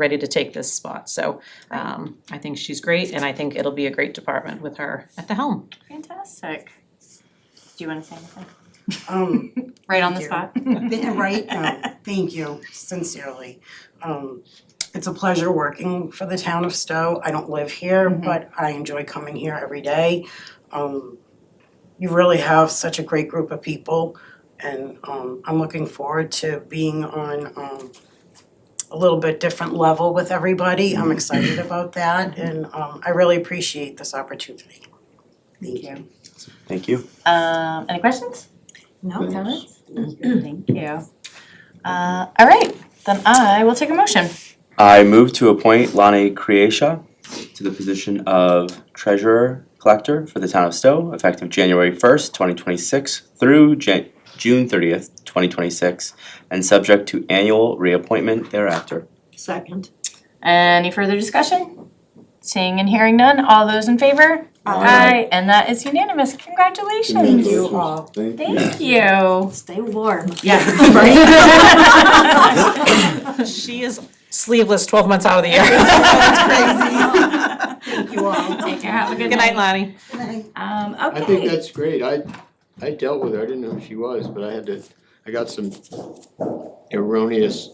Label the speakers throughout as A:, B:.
A: ready to take this spot. So um, I think she's great and I think it'll be a great department with her at the helm.
B: Fantastic. Do you wanna say anything?
C: Um,
B: Right on the
C: Thank
B: spot?
C: th- right, no, thank you sincerely. Um, it's a pleasure working for the town of Stowe. I don't live here,
B: Mhm.
C: but I enjoy coming here every day. Um, you really have such a great group of people and, um, I'm looking forward to being on, um, a little bit different level with everybody.
B: Mm-hmm.
C: I'm excited about that and, um, I really appreciate this opportunity.
B: Thank you.
D: Thank you.
B: Um, any questions?
C: No,
D: Thanks.
B: Comments? Thank you. Uh, all right, then I will take a motion.
D: I move to appoint Lonnie Creasia to the position of treasurer collector for the town of Stowe, effective January first, twenty twenty-six through Jan- June thirtieth, twenty twenty-six, and subject to annual reappointment thereafter.
E: Second.
B: Any further discussion? Seeing and hearing none, all those in favor?
D: Aye.
B: And that is unanimous, congratulations.
C: Thank you all.
F: Thank you.
B: Thank you.
E: Stay warm.
C: Yes,
A: She is sleeveless twelve months out of the year.
C: That's Thank you all.
B: Take care, have a good
A: Good night,
B: night.
A: Lonnie.
B: Um,
F: I think
B: okay,
F: that's great, I, I dealt with her, I didn't know who she was, but I had to, I got some erroneous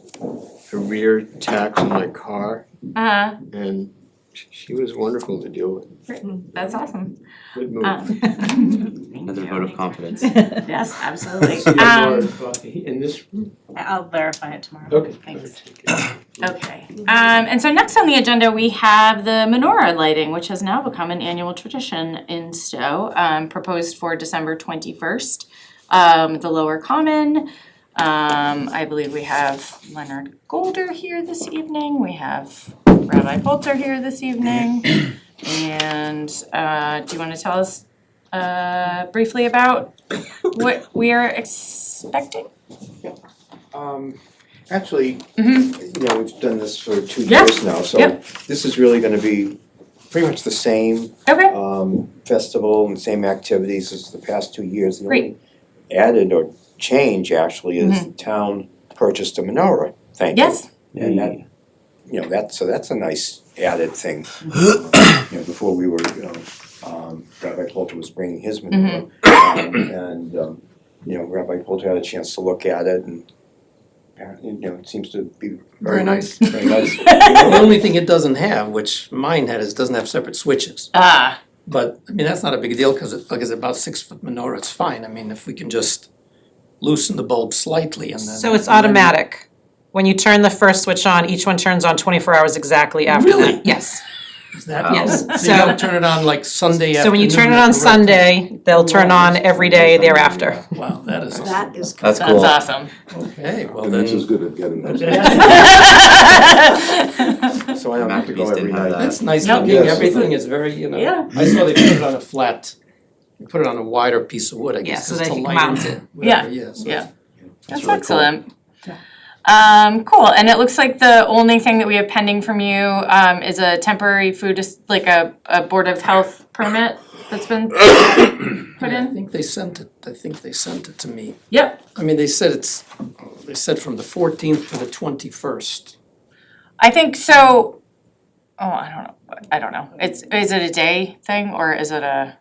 F: rear tax on my car,
B: uh,
F: and sh- she was wonderful to deal with,
B: Uh-huh. that's awesome.
F: good move.
B: Um,
D: Another vote of confidence.
B: Yes, absolutely.
F: See a
B: Um,
F: bar of coffee in this,
B: I'll verify it tomorrow.
F: okay.
B: Thanks.
F: Okay.
B: Okay. Um, and so next on the agenda, we have the menorah lighting, which has now become an annual tradition in Stowe, um, proposed for December twenty-first. Um, the lower common, um, I believe we have Leonard Golder here this evening, we have Rabbi Bolter here this evening. And, uh, do you wanna tell us, uh, briefly about what we are expecting?
G: Um, actually,
B: Mhm.
G: you know, we've done this for two
B: Yeah.
G: years now, so
B: Yep.
G: this is really gonna be pretty much the same
B: Okay,
D: Oh.
G: um festival and same activities as the past two years. The only
B: Great.
G: Added or change actually is
A: Mm-hmm.
G: the town purchased a menorah, thank you.
B: yes,
G: And that, you know, that, so that's a nice added thing.
A: Mm-hmm.
G: You know, before we were, you know, um, Rabbi Polter was bringing his menorah.
A: Mm-hmm.
G: um, And, um, you know, Rabbi Polter had a chance to look at it and, apparently, you know, it seems to be very nice, very nice.
H: The only thing it doesn't have, which mine had, is it doesn't have separate switches.
B: ah,
H: But, I mean, that's not a big deal, cause it, like it's about six foot menorah, it's fine, I mean, if we can just loosen the bulb slightly and then.
A: So it's
H: and then-
A: automatic. When you turn the first switch on, each one turns on twenty-four hours exactly after that.
H: Really?
A: Yes.
H: Is that-
A: Yes,
H: So you gotta
A: so-
H: turn it on like Sunday afternoon.
A: So when you turn it on
H: correct?
A: Sunday, they'll turn on every day thereafter.
H: Wow, that is,
E: That is.
D: That's
B: That's
D: cool.
B: awesome.
H: okay, well
F: Denise is
H: then,
F: good at getting those.
G: So I don't have to go
D: Maccabees
G: every
D: didn't have
G: night.
D: that.
H: that's nice
B: Yep.
H: looking,
F: Yes.
H: everything is very, you know.
B: Yeah.
H: I saw they put it on a flat, they put it on a wider piece of wood, I
A: Yeah,
H: guess,
A: so
H: 'cause
A: they
H: to
A: can
H: lighten
A: mount it.
H: whatever, yeah, so
B: yeah. That's
D: really cool.
B: excellent. Um, cool, and it looks like the only thing that we have pending from you, um, is a temporary food, dis- like a, a Board of Health permit that's been put
H: Yeah, I
B: in?
H: think they sent it, I think they sent it to me.
B: Yep,
H: I mean, they said it's, they said from the fourteenth to the twenty-first.
B: I think so, oh, I don't know, I don't know, it's, is it a day thing, or is it a,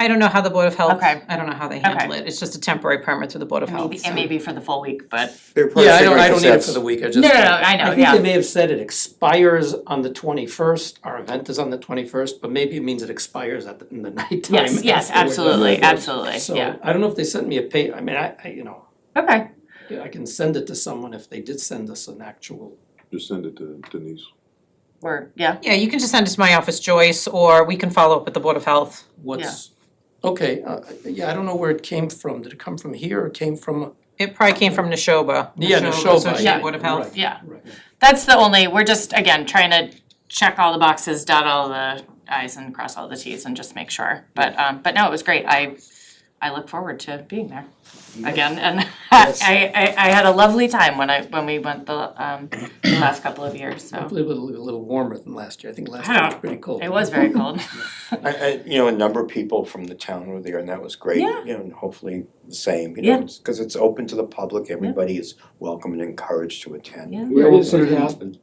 A: I don't know how the Board of Health,
B: Okay.
A: I don't know how they handle it. It's just a temporary permit through the Board of
D: Oh,
A: Health.
B: maybe, it may be for the full week, but.
G: They're probably
H: Yeah, I don't, I
G: figuring
H: don't need it
G: that's-
H: for the week, I just.
B: No, no, no, I know,
H: I think
B: yeah,
H: they may have said it expires on the twenty-first, our event is on the twenty-first, but maybe it means it expires at, the- in the nighttime.
B: yes, yes,
H: afterward.
B: absolutely, absolutely,
H: So,
B: yeah,
H: I don't know if they sent me a pay, I mean, I, I, you know,
B: okay.
H: yeah, I can send it to someone if they did send us an actual.
F: Just send it to Denise.
B: Or, yeah,
A: Yeah, you can just send it to my office, Joyce, or we can follow up with the Board of Health.
H: What's, okay, uh, yeah, I don't know where it came from, did it come from here or came from?
A: It probably came from Neshoba.
H: Yeah, Neshoba,
A: Associated
B: yeah,
A: Board of Health.
H: right.
B: yeah.
H: Right.
B: That's the only, we're just, again, trying to check all the boxes, dot all the i's and cross all the t's and just make sure. But, um, but no, it was great. I, I look forward to being there again. And I, I, I had a lovely time when I, when we went the, um, the last couple of years, so
H: Hopefully it'll be a little warmer than last year, I think last year was pretty cold.
B: it was very cold.
G: I I you know, a number of people from the town were there and that was great,
B: Yeah.
G: you know, and hopefully the same, you
B: Yeah.
G: know, because it's open to the public, everybody is welcome and encouraged to attend.
B: Yeah.
F: Where does it happen?